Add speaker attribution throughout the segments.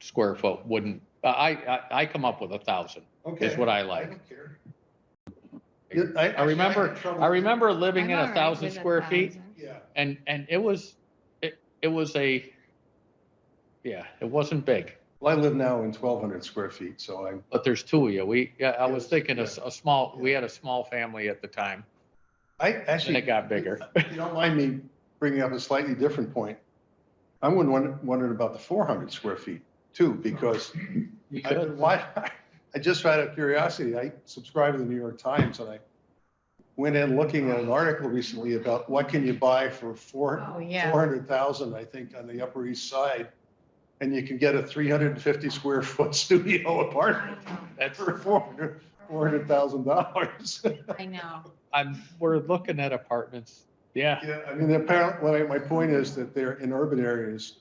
Speaker 1: square foot wouldn't, I, I, I come up with a thousand, is
Speaker 2: Okay.
Speaker 1: what I
Speaker 2: I
Speaker 1: like.
Speaker 2: don't care.
Speaker 1: You-
Speaker 2: I
Speaker 1: I remember, I remember living
Speaker 3: I'm
Speaker 1: in
Speaker 3: all
Speaker 1: a
Speaker 3: right
Speaker 1: thousand
Speaker 3: with a
Speaker 1: square feet
Speaker 3: thousand.
Speaker 2: Yeah,
Speaker 1: and, and it was, it, it was a, yeah, it wasn't big,
Speaker 2: well, I live now in twelve hundred square feet, so I'm,
Speaker 1: but there's two of you. We, yeah, I was
Speaker 2: Yes,
Speaker 1: thinking a, s- a small, we
Speaker 2: yeah.
Speaker 1: had a small family at the time
Speaker 2: I
Speaker 1: and
Speaker 2: actually.
Speaker 1: it got bigger.
Speaker 2: If you don't mind me bringing up a slightly different point, I'm wondering, wondering about the four hundred square feet too, because
Speaker 1: You
Speaker 2: I,
Speaker 1: could.
Speaker 2: why, I just out of curiosity, I subscribe to the New York Times and I went in looking at an article recently about what can you buy for four,
Speaker 3: Oh,
Speaker 2: four
Speaker 3: yeah.
Speaker 2: hundred thousand, I think, on the Upper East Side. And you can get a three hundred and fifty square foot studio apartment
Speaker 1: That's,
Speaker 2: for four hundred, four hundred thousand dollars.
Speaker 3: I know.
Speaker 1: I'm, we're looking at apartments. Yeah,
Speaker 2: Yeah, I mean, apparently, my, my point is that they're in urban areas,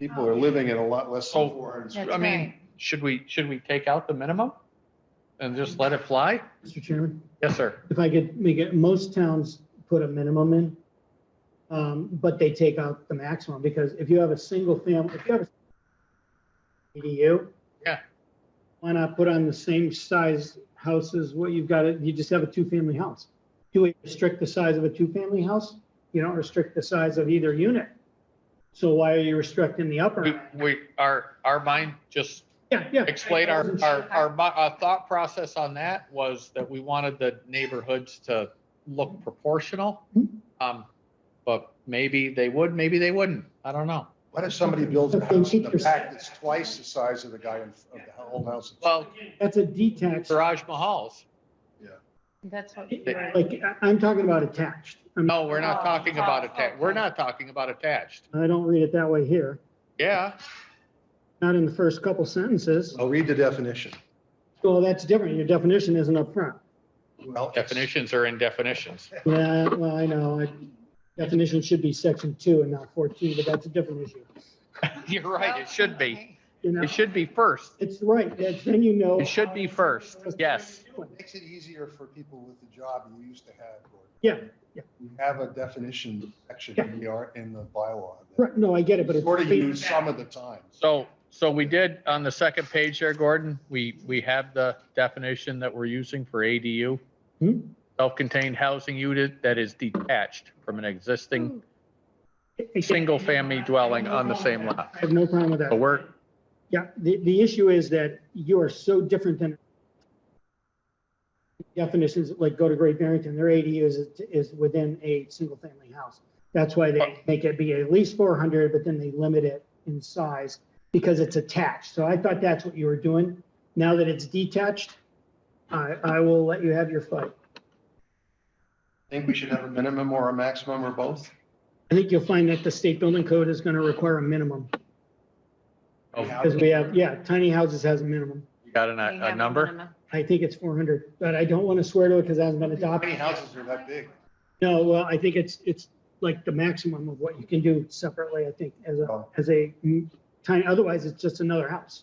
Speaker 2: people are living in a lot less than
Speaker 1: Oh.
Speaker 2: four hundred.
Speaker 3: That's
Speaker 1: I mean,
Speaker 3: right.
Speaker 1: should we, should we take out the minimum? And just let it fly?
Speaker 4: Mr. Chairman,
Speaker 1: Yes, sir.
Speaker 4: if I could make it, most towns put a minimum in. Um, but they take out the maximum because if you have a single family, if you have a EDU.
Speaker 1: Yeah.
Speaker 4: Why not put on the same size house as what you've got, it- you just have a two-family house. Do we restrict the size of a two-family house? You don't restrict the size of either unit. So why are you restricting the upper?
Speaker 1: We,
Speaker 4: end?
Speaker 1: we, our, our mind just
Speaker 4: Yeah, yeah.
Speaker 1: explain our, our, our, mi- our thought process on that was that we wanted the neighborhoods to look proportional. Um, but maybe they would, maybe they wouldn't. I don't know.
Speaker 2: What if somebody builds a
Speaker 4: But they
Speaker 2: house in
Speaker 4: keep
Speaker 2: the
Speaker 4: your-
Speaker 2: back that's twice the size of the guy in, of the old house?
Speaker 1: Well,
Speaker 4: That's a detached.
Speaker 1: Raj Mahal's.
Speaker 3: That's what. we were-
Speaker 4: Like, I- I'm talking about attached. I'm-
Speaker 1: No, we're not talking about attached. We're not talking about attached.
Speaker 4: I don't read it that way here,
Speaker 1: Yeah,
Speaker 4: not in the first couple sentences.
Speaker 2: I'll read the definition.
Speaker 4: Well, that's different. Your definition isn't up front.
Speaker 2: Well, it's-
Speaker 1: definitions are in definitions.
Speaker 4: Yeah, well, I know. I- Definition should be section two and not 14, but that's a different issue.
Speaker 1: You're right, it should be.
Speaker 3: Okay.
Speaker 4: You know,
Speaker 1: It should be first.
Speaker 4: it's right. that- Then you know.
Speaker 1: It should be first, yes.
Speaker 2: Makes it easier for people with the job you used to have. Gordon.
Speaker 4: Yeah, yeah.
Speaker 2: We have a definition section in the, art- in the bylaw. that
Speaker 4: Right, No, I get it, but it's.
Speaker 2: Sort of used some of the time.
Speaker 1: So, so we did, on the second page there, Gordon, we, we have the definition that we're using for ADU.
Speaker 4: Hmm.
Speaker 1: Self-contained housing unit that is detached from an existing
Speaker 4: I-
Speaker 1: single-family dwelling on the same lot.
Speaker 4: I have no problem with that.
Speaker 1: So we're,
Speaker 4: Yeah, the, the issue is that you are so different than definitions, like go to Great Barrington, their ADU is, is within a single family house. That's why they make it be at least four hundred, but then they limit it in size because it's attached. So I thought that's what you were doing. Now that it's detached, I, I will let you have your fight.
Speaker 2: Think we should have a minimum or a maximum or both?
Speaker 4: I think you'll find that the state building code is gonna require a minimum
Speaker 1: oh,
Speaker 4: because we have, yeah, tiny houses has a minimum.
Speaker 1: you got an-
Speaker 3: We
Speaker 1: a,
Speaker 3: have
Speaker 1: a number?
Speaker 3: minimum.
Speaker 4: I think it's four hundred, but I don't want to swear to it because it hasn't been
Speaker 2: How
Speaker 4: adopted.
Speaker 2: many houses are that big?
Speaker 4: No, well, I think it's, it's like the maximum of what you can do separately, I think, as a,
Speaker 2: Oh.
Speaker 4: as a mm, tiny, otherwise it's just another house.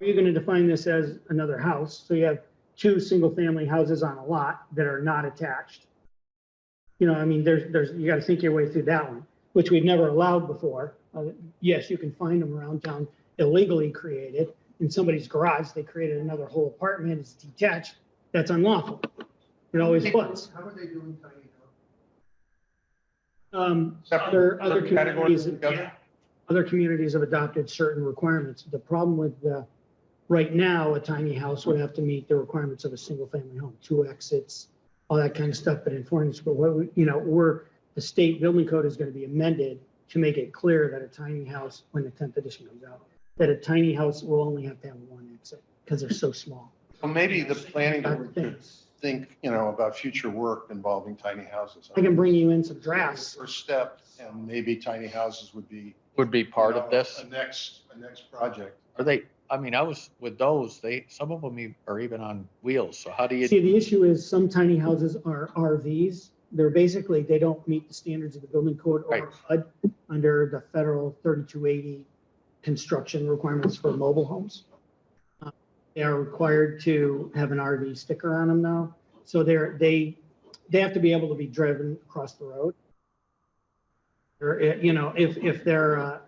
Speaker 4: Or you're gonna define this as another house, so you have two single-family houses on a lot that are not attached. You know, I mean, there's, there's, you gotta think your way through that one, which we've never allowed before. Uh, Yes, you can find them around town illegally created, in somebody's garage, they created another whole apartment, it's detached, that's unlawful. It always was.
Speaker 2: How are they doing tiny houses?
Speaker 4: Um,
Speaker 2: Separate-
Speaker 4: other, other
Speaker 2: separate categories
Speaker 4: communities,
Speaker 2: together?
Speaker 4: other communities have adopted certain requirements. The problem with the, right now, a tiny house would have to meet the requirements of a single-family home, two exits, all that kind of stuff, but in foreign, but what, we- you know, we're, the state building code is gonna be amended to make it clear that a tiny house, when the tenth edition comes out, that a tiny house will only have to have one exit, because they're so small.
Speaker 2: Well, maybe the planning
Speaker 4: I
Speaker 2: board
Speaker 4: think-
Speaker 2: could think, you know, about future work involving tiny houses.
Speaker 4: I can bring you in some drafts.
Speaker 2: First step, and maybe tiny houses would be. you
Speaker 1: Would be part
Speaker 2: know,
Speaker 1: of this.
Speaker 2: A next, a next project.
Speaker 1: Are they, I mean, I was with those, they, some of them e- are even on wheels. So how do you,
Speaker 4: See, the issue is some tiny houses are RVs. They're basically, they don't meet the standards of the building code
Speaker 1: Right.
Speaker 4: or HUD under the federal thirty-two eighty construction requirements for mobile homes. Uh, They are required to have an RV sticker on them now. So they're, they, they have to be able to be driven across the road. Or, eh, you know, if, if they're, uh,